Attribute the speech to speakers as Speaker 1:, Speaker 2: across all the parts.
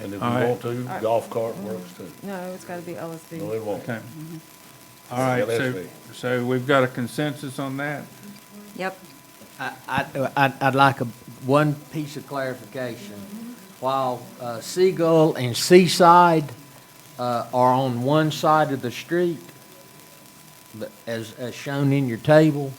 Speaker 1: And if we
Speaker 2: All right.
Speaker 1: want to, golf cart works too.
Speaker 3: No, it's gotta be LSB.
Speaker 1: No, it won't.
Speaker 2: Okay.
Speaker 4: Mm-hmm.
Speaker 2: All right,
Speaker 1: Yeah, that's
Speaker 2: so,
Speaker 1: right.
Speaker 2: so we've got a consensus on that?
Speaker 5: Yep.
Speaker 6: I, I- I'd, I'd like a, one piece of clarification. While uh, Seagull and Seaside uh, are on one side of the street, but as, as shown in your table,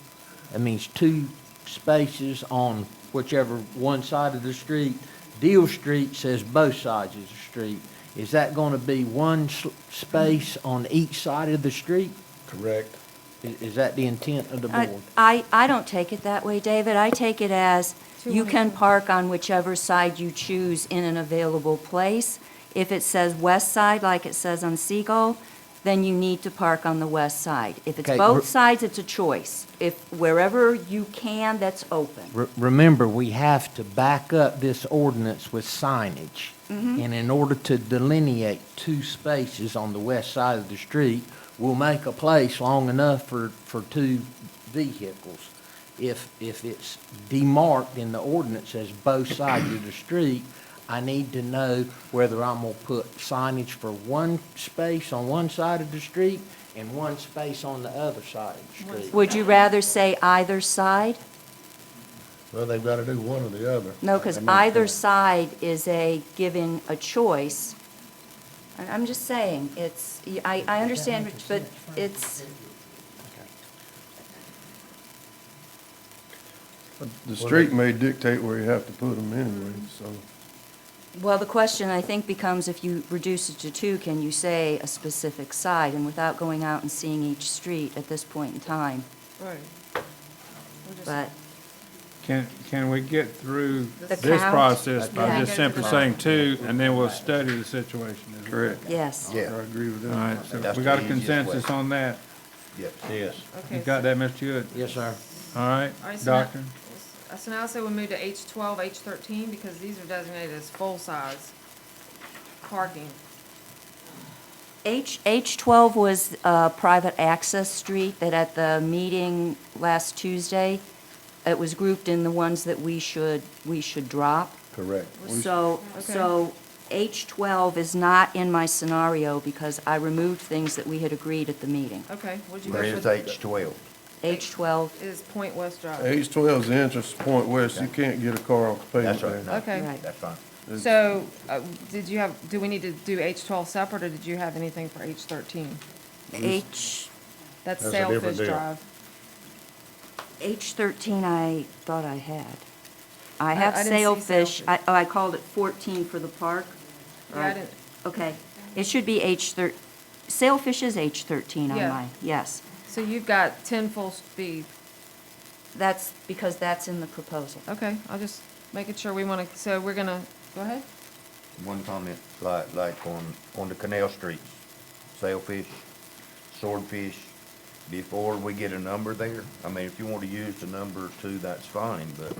Speaker 6: that means two spaces on whichever one side of the street. Deal Street says both sides of the street. Is that going to be one s- space on each side of the street?
Speaker 1: Correct.
Speaker 6: I- Is that the intent of the
Speaker 5: I-
Speaker 6: board?
Speaker 5: I, I don't take it that way, David. I take it as
Speaker 3: Two
Speaker 5: you
Speaker 3: on
Speaker 5: can
Speaker 3: two.
Speaker 5: park on whichever side you choose in an available place. If it says west side, like it says on Seagull, then you need to park on the west side. If it's
Speaker 6: Okay,
Speaker 5: both
Speaker 6: gr-
Speaker 5: sides, it's a choice. If wherever you can, that's open.
Speaker 6: Re- Remember, we have to back up this ordinance with signage. And in order to delineate two spaces on the west side of the street, we'll make a place long enough for, for two vehicles. If, if it's demarked in the ordinance as both sides of the street, I need to know whether I'm gonna put signage for one space on one side of the street and one space on the other side of the street.
Speaker 5: Would you rather say either side?
Speaker 1: Well, they've got to do one or the other.
Speaker 5: No, because
Speaker 1: That makes
Speaker 5: either
Speaker 1: sense.
Speaker 5: side is a, given a choice. I- I'm just saying, it's, I, I understand, Rich, but it's,
Speaker 7: The street may dictate where you have to put them anyway, so.
Speaker 5: well, the question, I think, becomes if you reduce it to two, can you say a specific side? And without going out and seeing each street at this point in time,
Speaker 3: Right. We're just-
Speaker 5: but,
Speaker 2: Can, can we get through
Speaker 5: The
Speaker 2: this
Speaker 5: count?
Speaker 2: process by
Speaker 5: Yeah.
Speaker 2: just simply saying two, and then we'll study the situation? is it?
Speaker 5: yes.
Speaker 7: I agree with
Speaker 2: All
Speaker 7: that.
Speaker 2: right, so
Speaker 4: That's
Speaker 2: we
Speaker 4: the
Speaker 2: got a
Speaker 4: easiest way.
Speaker 2: consensus on that.
Speaker 1: Yes.
Speaker 2: You
Speaker 3: Okay,
Speaker 2: got
Speaker 3: so-
Speaker 2: that, Mr. Hood?
Speaker 6: Yes, sir.
Speaker 2: All right,
Speaker 3: all right, so now-
Speaker 2: doctor?
Speaker 3: So now I say we move to H twelve, H thirteen, because these are designated as full-size parking.
Speaker 5: H, H12 was a private access street that at the meeting last Tuesday, it was grouped in the ones that we should, we should drop.
Speaker 1: Correct.
Speaker 5: So,
Speaker 3: Okay.
Speaker 5: so H12 is not in my scenario because I removed things that we had agreed at the meeting.
Speaker 3: Okay, what'd you
Speaker 4: Where
Speaker 3: go
Speaker 4: is
Speaker 3: for?
Speaker 4: H twelve?
Speaker 5: H12,
Speaker 3: Is Point West Drive.
Speaker 7: H twelve's the entrance to Point West, you can't get a car off the
Speaker 4: That's
Speaker 7: pavement
Speaker 4: right.
Speaker 7: there.
Speaker 4: no,
Speaker 3: Okay.
Speaker 5: Right.
Speaker 4: That's fine.
Speaker 3: So, uh, did you have, do we need to do H twelve separate, or did you have anything for H thirteen?
Speaker 5: H,
Speaker 3: That's
Speaker 1: That's a different
Speaker 3: Sailfish
Speaker 1: deal.
Speaker 3: Drive.
Speaker 5: H13 I thought I had. I
Speaker 3: I-
Speaker 5: have
Speaker 3: I didn't see
Speaker 5: sailfish, I,
Speaker 3: sailfish.
Speaker 5: oh, I called it 14 for the park.
Speaker 3: Yeah, I
Speaker 5: Right.
Speaker 3: didn't-
Speaker 5: Okay, it should be H13, sailfish is H13 on
Speaker 3: Yeah.
Speaker 5: mine, yes.
Speaker 3: So you've got ten full speed.
Speaker 5: That's because that's in the proposal.
Speaker 3: Okay, I'll just making sure we wanna, so we're gonna, go ahead?
Speaker 4: One comment, like, like on, on the canal streets, sailfish, swordfish, before we get a number there, I mean, if you want to use the number two, that's fine, but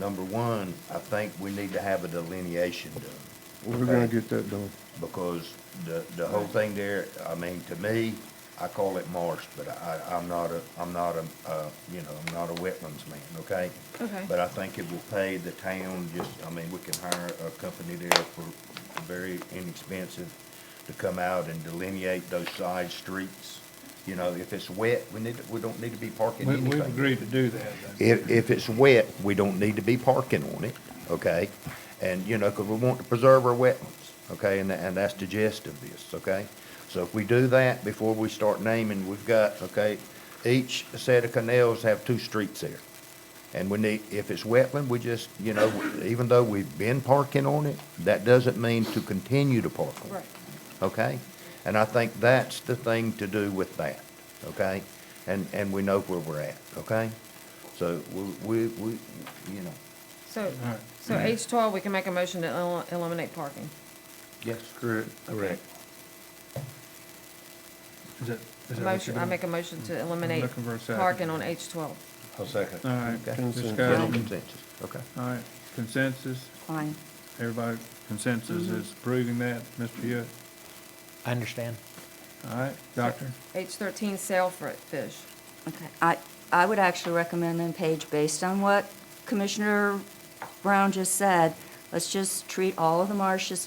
Speaker 4: number one, I think we need to have a delineation done.
Speaker 7: We're gonna
Speaker 4: okay?
Speaker 7: get that done.
Speaker 4: Because the, the whole thing there, I mean, to me, I call it marsh, but I, I'm not a, I'm not a, uh, you know, I'm not a wetlands man, okay?
Speaker 3: Okay.
Speaker 4: But I think it will pay the town, just, I mean, we can hire a company there for very inexpensive to come out and delineate those side streets. You know, if it's wet, we need, we don't need to be parking
Speaker 2: We,
Speaker 4: anything.
Speaker 2: we've agreed to do that.
Speaker 4: If, if it's wet, we don't need to be parking on it, okay? And, you know, because we want to preserve our wetlands, okay, and, tha- and that's the gist of this, okay? So if we do that, before we start naming, we've got, okay, each set of canals have two streets there. And we need, if it's wetland, we just, you know, even though we've been parking on it, that doesn't mean to continue to park on it okay? And I think that's the thing to do with that, okay? And, and we know where we're at, okay? So we, we, we, you know.
Speaker 3: So, so H twelve, we can make a motion to el- eliminate parking.
Speaker 4: Yes.
Speaker 7: Correct.
Speaker 1: Correct.
Speaker 2: Is that- is that what
Speaker 3: Motion,
Speaker 2: you're
Speaker 3: I
Speaker 2: doing?
Speaker 3: make a motion to eliminate
Speaker 2: looking for a second.
Speaker 3: parking on H twelve.
Speaker 1: A second.
Speaker 2: All right, discussion.
Speaker 4: Consensus, okay.
Speaker 2: All right, consensus,
Speaker 5: Fine.
Speaker 2: everybody consensus is approving that, Mr. Hood?
Speaker 6: I understand.
Speaker 2: All right, doctor?
Speaker 3: H thirteen sailfish.
Speaker 5: Okay, I, I would actually recommend then, Paige, based on what Commissioner Brown just said, let's just treat all of the marshes